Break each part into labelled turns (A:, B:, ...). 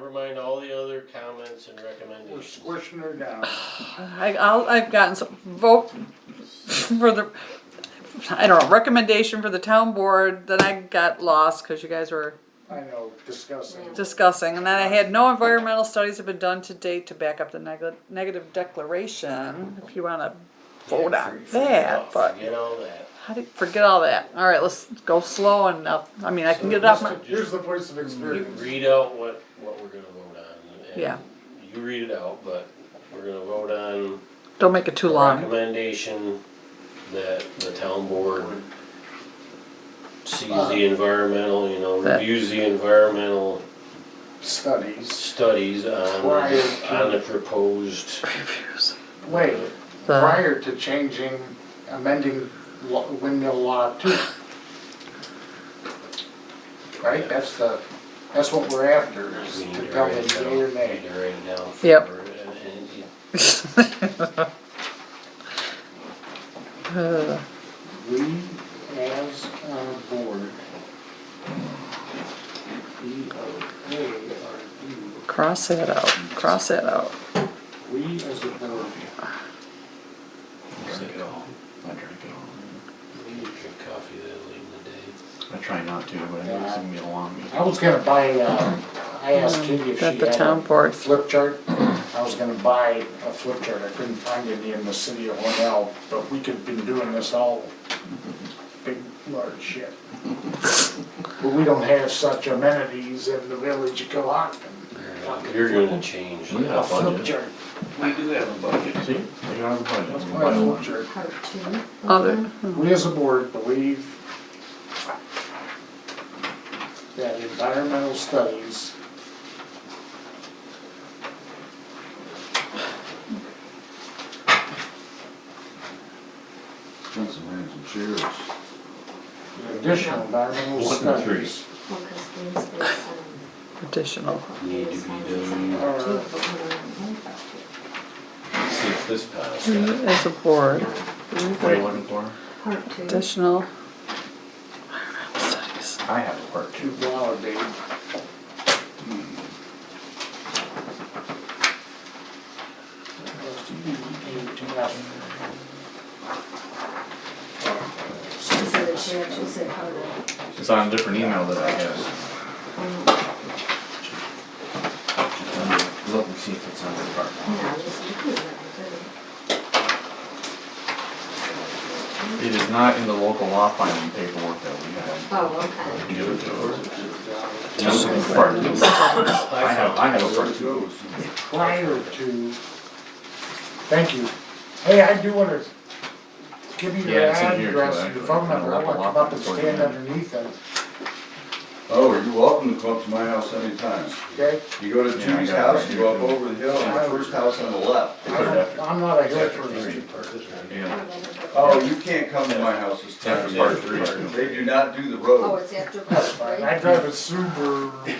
A: remind all the other comments and
B: We're
A: recommendations.
B: squishing her down.
C: I, I'll, I've gotten some vote for the, I don't know, recommendation for the town board, then I got lost because you guys were
B: I know, discussing.
C: discussing, and then I had no environmental studies have been done to date to back up the neg- negative declaration, if you wanna vote on that, but
A: Forget all that.
C: how do, forget all that, alright, let's go slow and up, I mean, I can get it off my,
B: Here's the voice of
A: You
B: experience.
A: read out what, what we're gonna vote on. and
C: Yeah.
A: You read it out, but we're gonna vote on
C: don't make it too
A: the
C: long.
A: recommendation that the town board sees the environmental, you know,
C: That-
A: reviews the environmental
B: Studies.
A: studies on,
B: Prior to-
A: on the proposed.
B: Wait,
C: The-
B: prior to changing, amending lo- windmill law two. Right, that's the, that's what we're after, is
A: We need
B: to
A: to
B: tell
A: write
B: them
A: it down-
B: yea or nay.
A: need to write it down for-
C: Yep.
A: and- and-
C: Uh,
B: We, as a board, B O A R D,
C: Cross that out, cross that out.
B: we as a board,
D: Let it go. Let her go.
A: You need to drink coffee that late in the day.
D: I try not to, but I know it's gonna be a long meeting.
B: I was gonna buy, uh, I asked Katie if she
C: That the
B: had
C: town
B: a
C: board,
B: flip chart. I was gonna buy a flip chart, I couldn't find any in the city of Hornell, but we could've been doing this all big, large shit. But we don't have such amenities in the village of Cohocton.
A: You're gonna change
D: We
A: that.
B: A
D: have
B: flip
D: budget.
B: chart,
D: We do have a budget. See, we got a budget.
B: let's
D: We'll
B: buy a
D: buy
B: flip
D: one.
B: chart.
E: Part two.
C: other,
B: We as a board believe that environmental studies
F: Johnson hands and chairs.
B: Additional environmental
D: One and three.
B: studies.
E: Well, 'cause these there's, um,
C: additional.
A: Need to be done.
E: part two, but we don't have part two.
A: See if this passes.
C: We As a board,
D: What are you looking for?
E: Part two.
C: additional environmental studies.
D: I have a part
B: To
D: two.
B: validate
E: She said that she actually said part one.
D: It's on a different email that I guess.
E: Um,
D: Let me see if it's on the part.
E: Yeah, I was just looking at it, I didn't.
D: It is not in the local law filing paperwork that we have.
E: Oh, okay.
D: Give it to her.
A: Just-
D: Part two. I have, I have a
F: Where
D: part
F: it
D: two.
F: goes.
B: prior to, thank you. Hey, I do wanna give you your
D: Yeah, it's in here, too,
B: address and your phone number, I
D: actually.
B: want to come up and stand underneath it,
F: Oh, you're welcome to come up to my house anytime.
B: okay?
F: You go to
D: Yeah, I
F: Judy's
D: got it.
F: house, you go up over the hill, my first house on the left.
B: I don't, I'm not a hill person.
D: Yeah.
F: Oh, you can't come to my house this time.
D: That's part three.
F: They do not do the
E: Oh,
F: road.
E: it's after
B: That's
E: part
B: fine, I
E: three?
B: drive a Subaru.
E: Oh.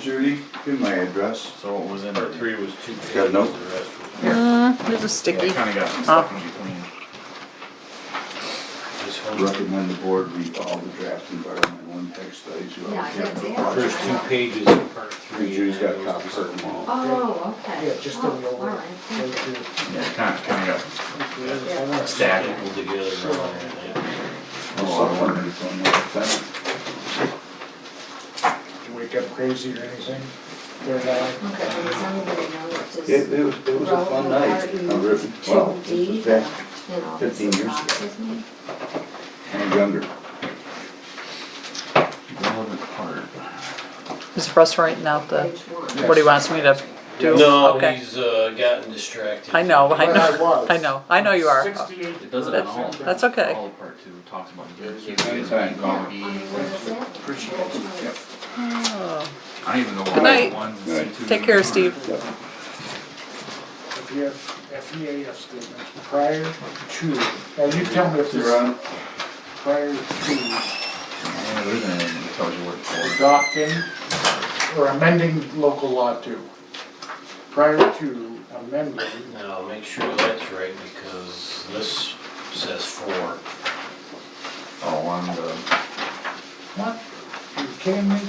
F: Judy, give my address.
D: So what was in
A: Part
D: it?
A: three was two pages,
F: Got
A: the
F: no-
A: rest was,
C: Mm, There's a
D: Yeah,
C: sticky.
D: I kinda got stuck in between.
A: this whole,
F: Recommend the board read all the draft environmental impact studies. you
E: Yeah, I
F: already have
E: did
F: the
E: that.
A: first two pages of part three.
F: And Judy's got
A: and then
F: copies of them all.
E: Oh, okay.
B: Yeah, just in the
E: Oh,
B: old.
E: All right, thank you.
D: Yeah, kinda, kinda got
A: Stack
D: stacked.
A: them together. and all that.
F: Oh, I wondered if I'm not offended.
B: Did you wake up crazy or anything? They're not-
E: Okay, well, somebody knows just,
F: It,
E: you
F: it was, it was a fun night.
E: E
F: I really- Well, this was back
E: know,
F: 15
E: this
F: years ago.
E: bothers me.
F: and younger.
D: Relevant part.
C: Is Russ writing out the,
E: Page one.
C: what he wants me to do?
A: No,
C: Okay.
A: he's, uh, gotten distracted.
C: I know, I
B: Well, I
C: know,
B: was.
C: I know, I know you are.
B: Sixty-eight.
D: It doesn't at all.
C: That's okay.
D: All of part two talks about.
F: Anytime.
E: I mean, what is that? Which one is-
C: Oh.
D: I don't even know.
C: Good night.
D: night.
C: Take care, Steve.
B: If you have FEAF statements prior to, and you tell me if
F: You're
B: this,
F: on.
B: prior to
D: Yeah, there isn't anything that tells you what it's for.
B: adopting or amending local law two. Prior to amending,
A: Now, make sure that's right, because this says four.
D: Oh, on the,
B: what, you kidding me?